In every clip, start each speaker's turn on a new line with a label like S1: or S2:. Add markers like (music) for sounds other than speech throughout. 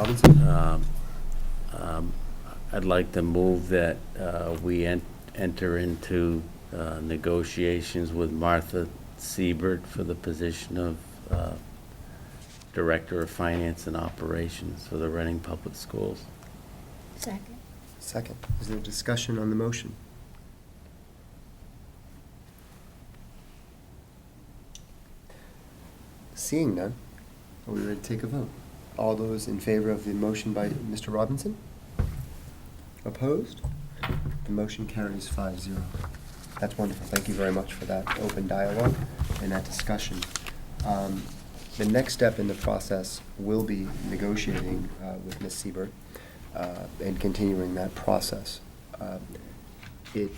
S1: Robinson?
S2: I'd like to move that uh, we en- enter into uh, negotiations with Martha Siebert for the position of uh, Director of Finance and Operations for the Reading Public Schools.
S3: Second.
S1: Second. Is there discussion on the motion? Seeing none, are we ready to take a vote? All those in favor of the motion by Mr. Robinson? Opposed? The motion carries five zero. That's wonderful. Thank you very much for that open dialogue and that discussion. Um, The next step in the process will be negotiating uh, with Ms. Siebert uh, and continuing that process. Uh, It,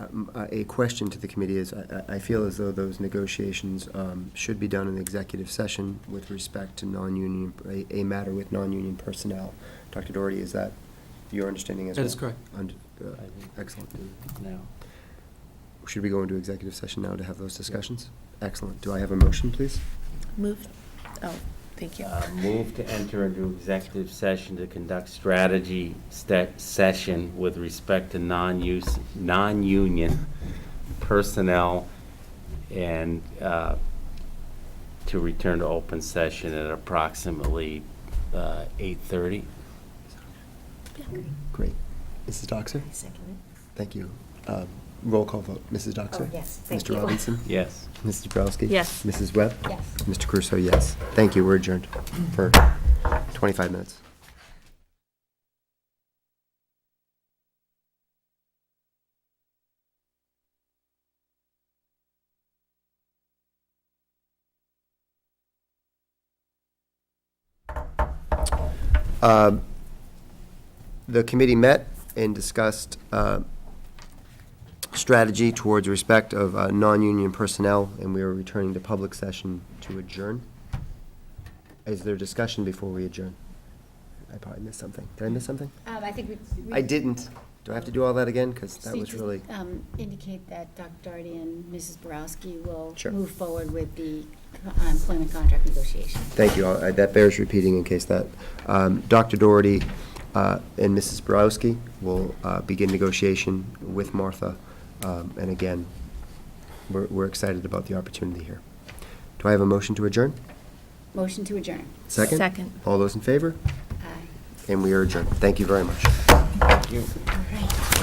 S1: um, uh, a question to the committee is, I- I I feel as though those negotiations um, should be done in executive session with respect to non-union, a- a matter with non-union personnel. Dr. Doherty, is that your understanding as well?
S4: That is correct.
S1: Und- uh, Excellent.
S2: Now,
S1: Should we go into executive session now to have those discussions? Excellent. Do I have a motion, please?
S3: Move, oh, thank you.
S2: uh, Move to enter into executive session to conduct strategy sta- session with respect to non-use, non-union personnel and uh, to return to open session at approximately uh, 8:30.
S1: Great. Mrs. Doxer?
S3: Second.
S1: Thank you. Uh, Roll call vote. Mrs. Doxer?
S3: Oh, yes, thank
S1: Mr.
S3: you.
S1: Robinson?
S2: (laughs) Yes.
S1: Mrs. Bobrowski?
S3: Yes.
S1: Mrs. Webb?
S3: Yes.
S1: Mr. Crusoe, yes. Thank you. We're adjourned for 25 minutes. Um, The committee met and discussed uh, strategy towards respect of uh, non-union personnel, and we are returning to public session to adjourn. Is there discussion before we adjourn? I probably missed something. Did I miss something?
S5: Um, I think we.
S1: I didn't. Do I have to do all that again? Because that
S5: So
S1: was
S5: just,
S1: really,
S5: um, Indicate that Dr. Doherty and Mrs. Borowski will
S1: Sure.
S5: move forward with the co- employment contract negotiation.
S1: thank you. I- That bears repeating in case that, um, Dr. Doherty uh, and Mrs. Borowski will uh, begin negotiation with Martha. Um, And again, we're, we're excited about the opportunity here. Do I have a motion to adjourn?
S5: Motion to adjourn.
S1: Second?
S3: Second.
S1: All those in favor?
S5: Aye.
S1: And we are adjourned. Thank you very much.
S5: All right.